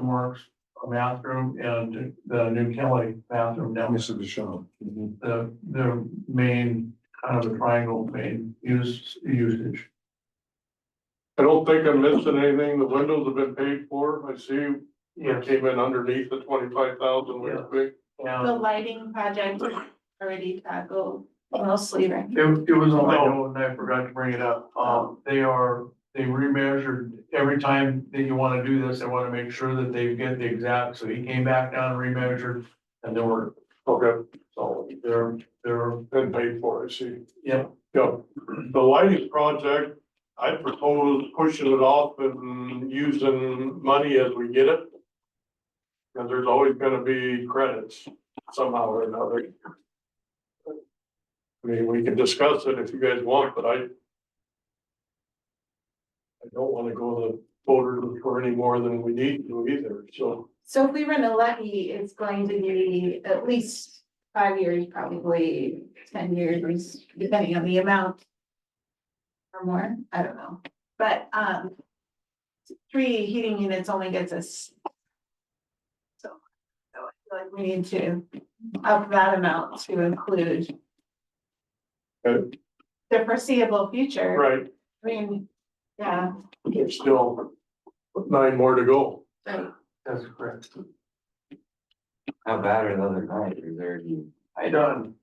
Works bathroom and the new Kelly bathroom down Mr. Deshawn. Mm-hmm. the, the main, kind of the triangle main use, usage. I don't think I'm missing anything. The windows have been paid for. I see you came in underneath the twenty-five thousand, which Yeah. big. The Yeah, lighting project already tackled mostly, right? it, it was on my note and I forgot to bring it up. Um, they are, they remeasured every time that you wanna do this, they wanna make sure that they get the exact, so he came back down and remeasured. And they were, Okay, so they're, they're, been paid for, I see. yeah, Yeah, the lighting project, I propose pushing it off and using money as we get it. Cause there's always gonna be credits somehow or another. I mean, we can discuss it if you guys want, but I. I don't wanna go to the voters for any more than we need to either, so. So if we run a levy, it's going to be at least five years, probably ten years, depending on the amount. Or more, I don't know, but, um. Three heating units only gets us. So, so I feel like we need to up that amount to include. Okay. The foreseeable future. Right, I mean, yeah, there's still nine more to go. but that's correct. How bad are the other night? Is there any? I done.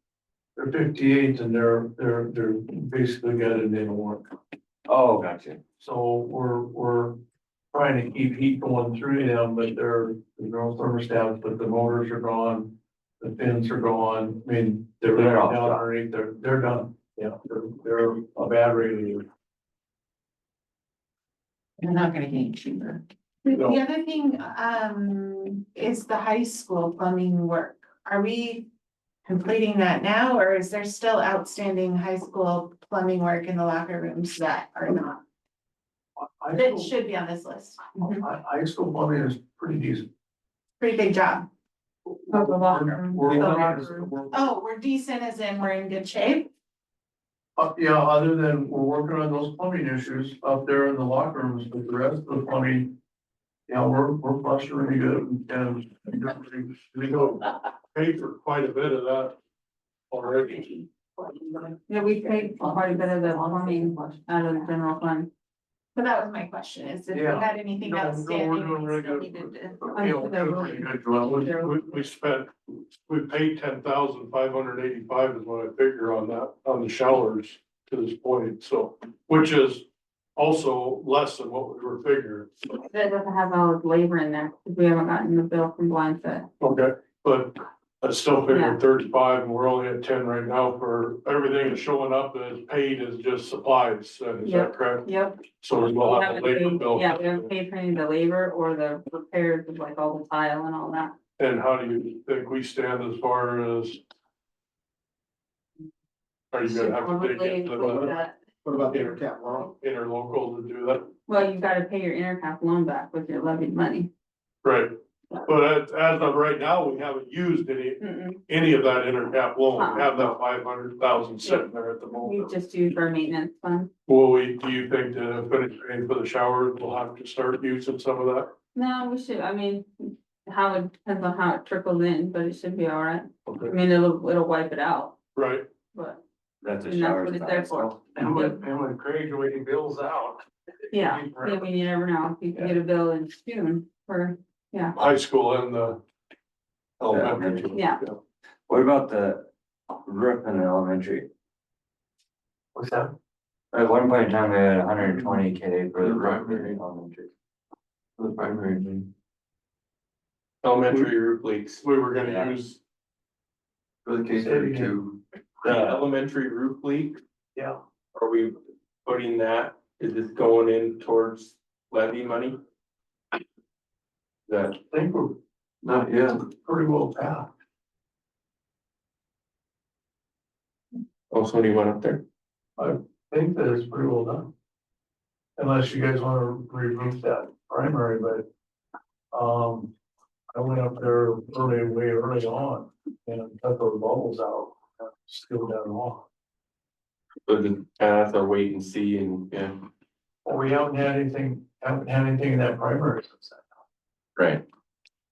They're fifty-eight and they're, they're, they're basically got it in a warrant. Oh, gotcha. So we're, we're trying to keep heat going through them, but they're, there's no thermostats, but the motors are gone. The fins are gone, I mean, they're They're down all done. underneath, they're, they're done, yeah, they're, they're a bad radio. they're not gonna get cheaper. No. The other thing, um, is the high school plumbing work. Are we completing that now, or is there still outstanding high school plumbing work in the locker rooms that are not? I, I, That should be on this list. Mm-hmm. I, I still plumbing is pretty decent. Pretty big job. Of the locker room. We're, The we're, we're- Oh, we're decent as in we're in good shape? uh, yeah, other than we're working on those plumbing issues up there in the locker rooms, but the rest of the plumbing. Yeah, we're, we're flushing really good and, and We go pay for quite a bit of that already. Yeah, we paid quite a bit of the plumbing out of the general fund. So that was my question, is if we Yeah. had anything No, no, we're outstanding. doing we really still good. needed to- Yeah, we're doing pretty good, Joel. We, we- we spent, we paid ten thousand five hundred eighty-five is what I figure on that, on the showers to this point, so, which is also less than what we were figuring. That doesn't have all the labor in there, because we haven't gotten the bill from Blindfoot. Okay. But I still figure Yeah. thirty-five, and we're only at ten right now for everything that's showing up that is paid is just supplies, then, is Yeah. that correct? Yep. So We we'll have haven't the labor paid- bill. Yeah, we haven't paid for any of the labor or the repairs of like all the tile and all that. And how do you think we stand as far as? Are you gonna have to dig Probably into include the that. What about the intercap loan? interlocal to do that? Well, you've gotta pay your intercap loan back with your levied money. Right, but as, as of right now, we haven't used any, Mm-mm. any of that intercap loan, we have that five hundred thousand sitting there at the We moment. just used our maintenance fund. Will we, do you think to finish paying for the showers, we'll have to start using some of that? No, we should, I mean, how it depends on how it trickles in, but it should be all right. I Okay, mean, it'll, it'll wipe it out, Right, but That's a And that's shower. what it's there for. And when, and when Craig, when he bills out. yeah. Yeah, we you never know, if you can get a bill in June for, high school and the Oh, elementary. Yeah. What about the roof in the elementary? What's that? At one point in time, they had hundred and twenty K for the The roof primary. in the elementary. For the primary. Elementary roof leaks, We were gonna Yeah. use, for the case Say it of again. two, the The, elementary roof leak, Yeah, are we putting that, is this going in towards levy money? the, I think we're Not yet. pretty well packed. Oh, somebody went up there? I think that it's pretty well done. Unless you guys wanna remove that primary, but, um, I went up there early, way early on and cut those bubbles out, and sealed that off. So just, uh, that's a wait and see and, yeah. Well, we haven't had anything, haven't had anything in that primary since Right.